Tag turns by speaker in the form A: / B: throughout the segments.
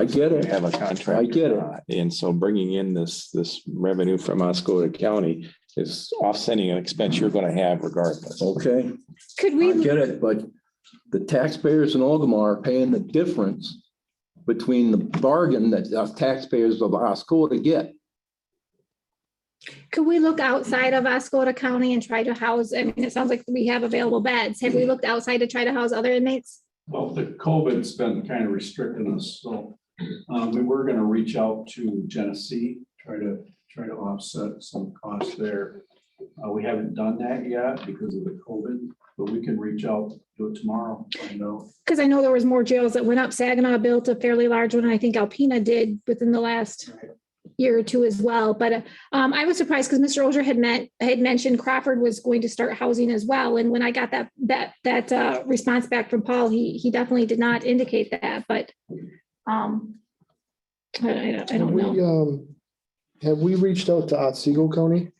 A: I get
B: We
A: it.
B: have a contract.
A: I get
B: or
A: it.
B: not.
A: And so bringing in this, this revenue from Oscoda County is offsetting an expense you're going to have regardless.
C: Okay,
D: Could
C: I
D: we,
C: get it, but the taxpayers in Ogama are paying the difference between the bargain that us taxpayers of Oscoda get.
D: could we look outside of Oscoda County and try to house, I mean, it sounds like we have available beds. Have we looked outside to try to house other inmates?
E: Well, the COVID's been kind of restricting us, so um, we were gonna reach out to Genesee, try to, try to offset some costs there. Uh, we haven't done that yet because of the COVID, but we can reach out, do it tomorrow, find out.
D: Because I know there was more jails that went up. Saginaw built a fairly large one, and I think Alpena did within the last year or two as well. But um, I was surprised because Mr. Oger had met, had mentioned Crawford was going to start housing as well. And when I got that, that, that uh, response back from Paul, he, he definitely did not indicate that, but um, I, I don't- I
F: Have
D: don't know.
F: we, um, have we reached out to Otsego County?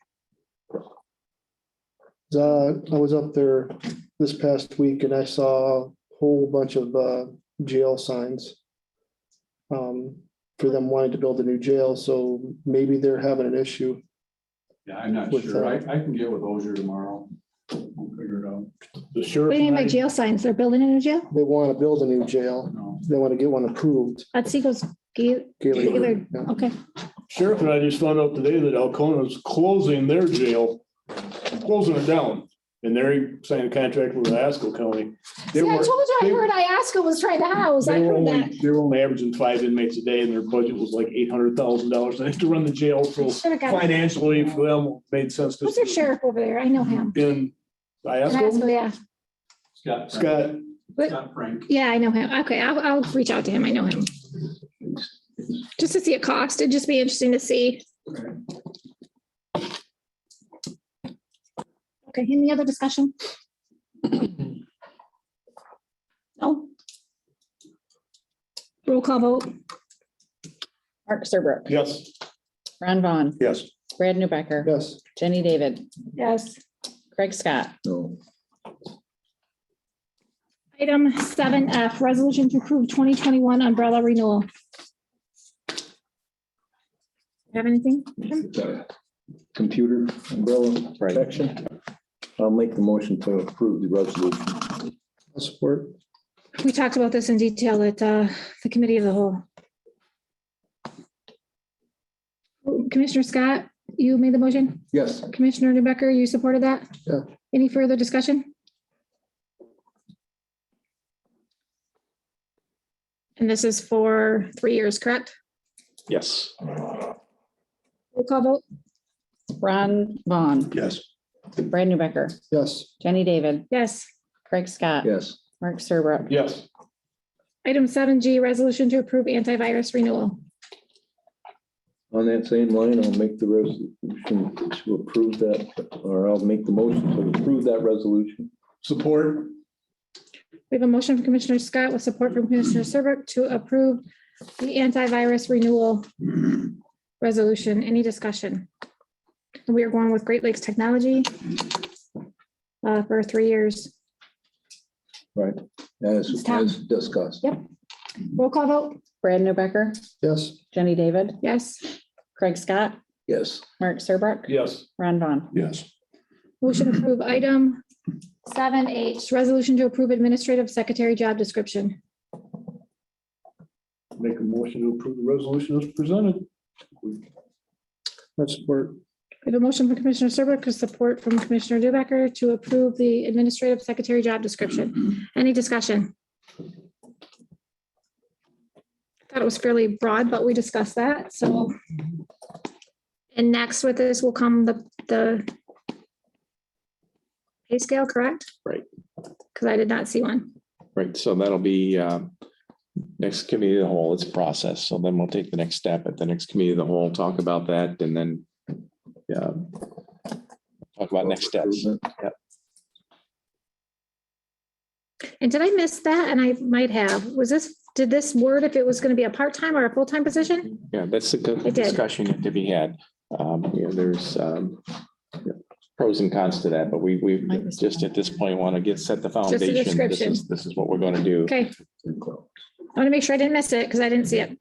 F: Uh, I was up there this past week and I saw a whole bunch of, uh, jail signs. Um, for them wanting to build a new jail, so maybe they're having an issue.
E: Yeah, I'm not
F: With,
E: sure. I,
F: uh,
E: I can get with Ozier tomorrow. We'll figure it out.
G: The
D: What
G: sheriff,
D: do you mean by
G: and
D: jail signs? They're building a new jail?
F: They want to build a new jail.
E: No,
F: They want to get one approved.
D: Otsiko's, Ga- Gaylord.
F: Gaylord, yeah.
D: okay.
G: I- sheriff and I just found out today that Alcona's closing their jail, closing it down. And they're signing a contract with Asco County.
D: See,
G: They
D: I
G: were,
D: told you, I
G: they-
D: heard Iasco was trying to house. I
G: they were
D: heard
G: only,
D: that.
G: they were only averaging five inmates a day and their budget was like eight hundred thousand dollars. They have to run the jail, so
D: Should've got-
G: financially for them made sense. 'cause
D: What's their sheriff over there? I know him.
G: In Iasco,
D: Iasco, yeah.
E: Scott.
G: Scott,
E: Scott Frank.
D: Yeah, I know him. Okay, I'll, I'll reach out to him. I know him. Just to see a cost. It'd just be interesting to see. Okay, any other discussion? No? Roll call vote.
H: Mark Serbrook,
G: yes.
H: Ron Vaughn,
G: Yes.
H: Brad Newbecker,
F: Yes.
H: Jenny David,
D: Yes.
H: Craig Scott,
C: No.
D: Item seven F, resolution to approve twenty twenty-one umbrella renewal. Have anything?
C: Computer umbrella
A: Right.
C: protection. I'll make the motion to approve the resolution.
F: I'll Support.
D: We talked about this in detail at uh, the committee of the whole. Commissioner Scott, you made the motion.
C: Yes.
D: Commissioner Newbecker, you supported that?
F: Yeah.
D: Any further discussion? And this is for three years, correct?
A: Yes.
D: Roll call vote?
H: Ron Vaughn,
G: Yes.
H: Brad Newbecker,
F: Yes.
H: Jenny David,
D: Yes.
H: Craig Scott,
C: Yes.
H: Mark Serbrook,
G: Yes.
D: Item seven G, resolution to approve antivirus renewal.
C: On that same line, I'll make the resolution to approve that, or I'll make the motion to approve that resolution.
G: Support,
D: We have a motion from Commissioner Scott with support from Commissioner Serbrook to approve the antivirus renewal resolution. Any discussion? And We are going with Great Lakes Technology uh, for three years.
C: Right, as,
D: It's time.
C: as discussed.
D: Roll call vote?
H: Brad Newbecker,
F: Yes.
H: Jenny David,
D: Yes.
H: Craig Scott,
C: Yes,
H: Mark Serbrook,
G: yes.
H: Ron Vaughn.
G: Yes.
D: Motion to approve item seven H, resolution to approve administrative secretary job description.
G: Make a motion to approve the resolution as presented.
F: I support.
D: We have a motion from Commissioner Serbrook with support from Commissioner Dubacker to approve the administrative secretary job description. Any discussion? Thought it was fairly broad, but we discussed that, so. And next with this will come the, the pay scale, correct?
A: Right.
D: Because I did not see one.
A: Right. So that'll be um, next committee of the whole. It's process. So then we'll take the next step at the next committee of the whole, talk about that and then yeah, talk about next steps.
D: And did I miss that? And I might have. Was this, did this word if it was going to be a part-time or a full-time position?
A: Yeah, that's the
D: I
A: good
D: did.
A: discussion to be had. Um, you know, there's um, pros and cons to that, but we, we
H: Might be-
A: just at this point want to get, set the
D: a
A: foundation. This
D: description.
A: is, this is what we're going to do.
D: Okay, I want to make sure I didn't miss it because I didn't see it.